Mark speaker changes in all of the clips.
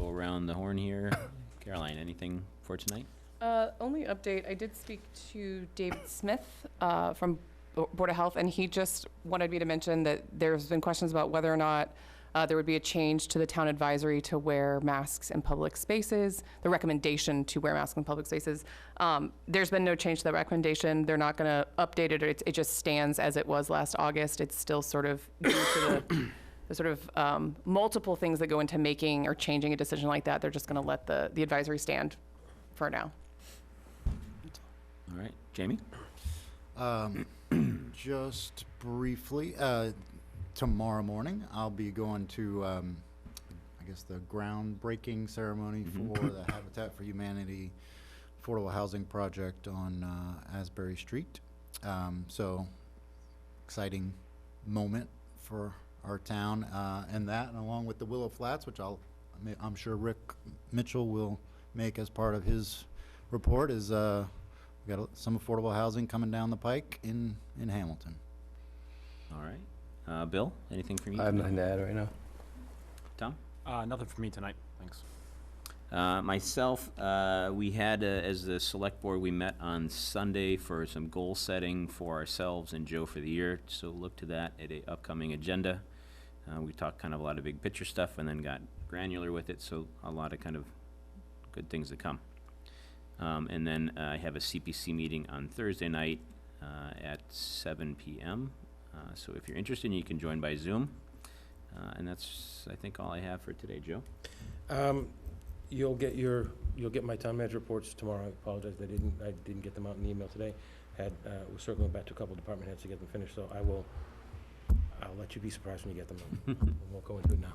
Speaker 1: around the horn here. Caroline, anything for tonight?
Speaker 2: Uh, Only update, I did speak to David Smith uh, from Bo- Board of Health, and he just wanted me to mention that there's been questions about whether or not uh, there would be a change to the town advisory to wear masks in public spaces, the recommendation to wear masks in public spaces. Um, There's been no change to that recommendation. They're not going to update it, or it's- it just stands as it was last August. It's still sort of due to the the sort of um, multiple things that go into making or changing a decision like that. They're just going to let the the advisory stand for now.
Speaker 1: All right, Jamie?
Speaker 3: Um, Just briefly, uh, tomorrow morning, I'll be going to, um, I guess, the groundbreaking ceremony for the Habitat for Humanity Affordable Housing Project on uh, Asbury Street. Um, So exciting moment for our town uh, and that, and along with the Willow Flats, which I'll, I mean, I'm sure Rick Mitchell will make as part of his report, is uh, we got a- some affordable housing coming down the pike in, in Hamilton.
Speaker 1: All right. Uh, Bill, anything from you?
Speaker 4: I have
Speaker 1: tonight?
Speaker 4: nothing to add right now.
Speaker 1: Tom?
Speaker 5: Uh, nothing for me tonight, thanks.
Speaker 1: Uh, Myself, uh, we had, uh, as the select board, we met on Sunday for some goal setting for ourselves and Joe for the year, so look to that at a upcoming agenda. Uh, We talked kind of a lot of big picture stuff and then got granular with it, so a lot of kind of good things to come. Um, And then uh, I have a CPC meeting on Thursday night uh, at seven PM. Uh, So if you're interested, you can join by Zoom. Uh, And that's, I think, all I have for today, Joe.
Speaker 4: Um, You'll get your, you'll get my town manager reports tomorrow. I apologize, I didn't, I didn't get them out in the email today. Had, uh, was circling back to a couple department heads to get them finished, so I will, I'll let you be surprised when you get them. We won't go into it now.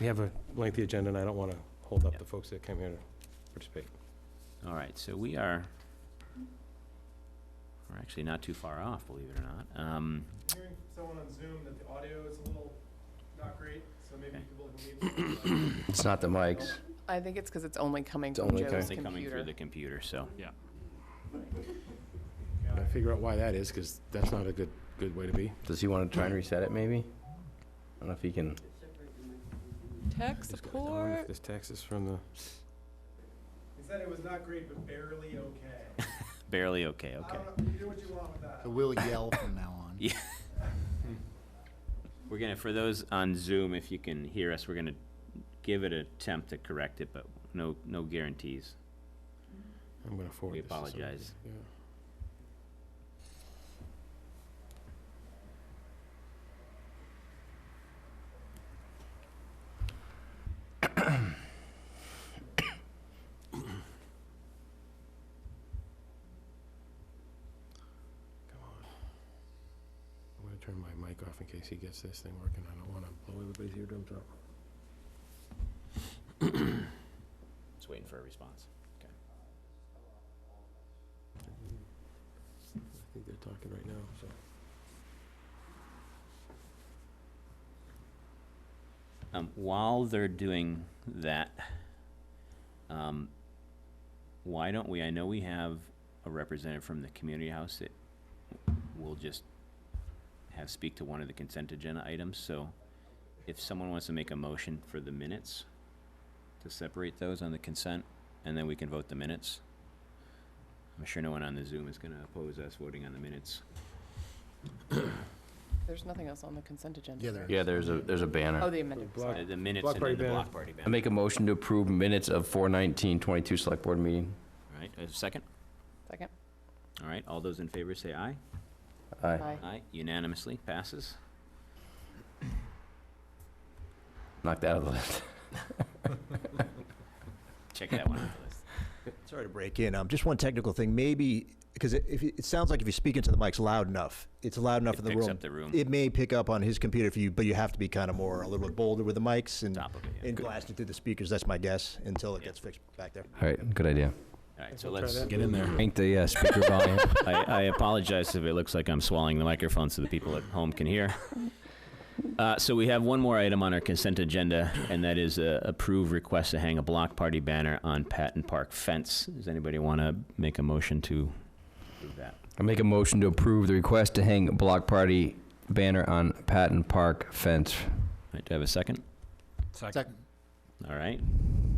Speaker 4: We have a lengthy agenda, and I don't want to hold up the folks that came here to participate.
Speaker 1: All right, so we are, we're actually not too far off, believe it or not. Um,
Speaker 6: hearing from someone on Zoom that the audio is a little not great, so maybe
Speaker 1: Okay.
Speaker 6: you could look and leave.
Speaker 4: It's not the mics.
Speaker 2: I think it's because it's only coming
Speaker 4: It's
Speaker 2: from
Speaker 4: only
Speaker 2: Joe's
Speaker 1: They're coming through
Speaker 2: computer.
Speaker 1: the computer, so,
Speaker 7: Gotta figure out why that is, because that's not a good, good way to be.
Speaker 4: Does he want to try and reset it, maybe? I don't know if he can.
Speaker 2: Tech support.
Speaker 7: This text is from the.
Speaker 6: He said it was not great, but barely okay.
Speaker 1: barely okay,
Speaker 6: I
Speaker 1: okay.
Speaker 6: don't know, you do what you want with that.
Speaker 3: So we'll yell from now on.
Speaker 1: Yeah. We're gonna, for those on Zoom, if you can hear us, we're gonna give it an attempt to correct it, but no, no guarantees.
Speaker 7: I'm gonna forward
Speaker 1: We
Speaker 7: this to somebody.
Speaker 1: apologize.
Speaker 7: Yeah.
Speaker 4: Come on.
Speaker 7: I'm gonna turn my mic off in case he gets this thing working. I don't wanna blow everybody's eardrums out.
Speaker 1: Just waiting for a response.
Speaker 7: I think they're talking right now, so.
Speaker 1: Um, while they're doing that, um, why don't we, I know we have a representative from the community house that will just have speak to one of the consent agenda items, so if someone wants to make a motion for the minutes, to separate those on the consent, and then we can vote the minutes. I'm sure no one on the Zoom is gonna oppose us voting on the minutes.
Speaker 2: There's nothing else on the consent agenda.
Speaker 3: Yeah,
Speaker 2: right?
Speaker 3: there
Speaker 4: Yeah, there's a, there's a
Speaker 2: Oh,
Speaker 4: banner.
Speaker 2: the amended.
Speaker 7: Block-
Speaker 1: Uh, The minutes
Speaker 7: Block
Speaker 1: and
Speaker 7: party
Speaker 1: then the
Speaker 7: banner.
Speaker 1: block party
Speaker 4: I
Speaker 1: ban.
Speaker 4: make a motion to approve minutes of 4/19/22 Select Board meeting.
Speaker 1: All right, a second?
Speaker 2: Second.
Speaker 1: All right, all those in favor say aye.
Speaker 4: Aye.
Speaker 2: Aye.
Speaker 1: Aye, unanimously, passes.
Speaker 4: Knocked out of the list.
Speaker 1: Check that one off the list.
Speaker 8: Sorry to break in. Um, just one technical thing. Maybe because it, if you- it sounds like if you're speaking to the mics loud enough, it's loud enough in
Speaker 1: It
Speaker 8: the
Speaker 1: picks
Speaker 8: room.
Speaker 1: up the room,
Speaker 8: It may pick up on his computer for you, but you have to be kind of more a little bit bolder with the mics and
Speaker 1: top of it, yeah.
Speaker 8: and blasting through the speakers. That's my guess until it
Speaker 1: Yeah.
Speaker 8: gets fixed back there.
Speaker 4: All right, good idea.
Speaker 1: All right,
Speaker 7: If
Speaker 1: so
Speaker 7: we'll try
Speaker 1: let's,
Speaker 7: that.
Speaker 1: I
Speaker 7: Get in there.
Speaker 4: Ain't the uh, speaker volume.
Speaker 1: I apologize if it looks like I'm swallowing the microphone so the people at home can hear. Uh, So we have one more item on our consent agenda, and that is uh, approve request to hang a block party banner on Patton Park fence. Does anybody want to make a motion to approve that?
Speaker 4: I make a motion to approve the request to hang block party banner on Patton Park fence.
Speaker 1: All right, do I have a second?
Speaker 5: Second.
Speaker 3: Second.
Speaker 1: All right,